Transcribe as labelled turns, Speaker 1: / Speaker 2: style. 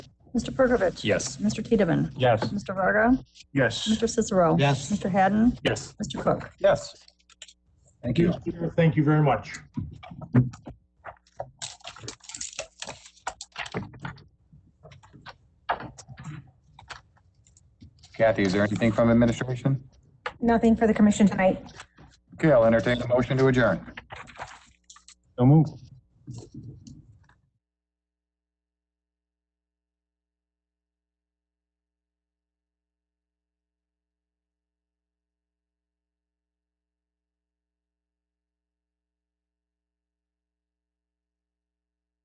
Speaker 1: Mr. Perkovich.
Speaker 2: Yes.
Speaker 1: Mr. Tiedemann.
Speaker 2: Yes.
Speaker 1: Mr. Varga.
Speaker 2: Yes.
Speaker 1: Mr. Cicero.
Speaker 3: Yes.
Speaker 1: Mr. Hadden.
Speaker 2: Yes.
Speaker 1: Mr. Cook.
Speaker 2: Yes.
Speaker 3: Thank you.
Speaker 4: Thank you very much.
Speaker 5: Kathy, is there anything from administration?
Speaker 6: Nothing for the commission tonight.
Speaker 5: Okay, I'll entertain the motion to adjourn.
Speaker 4: So moved.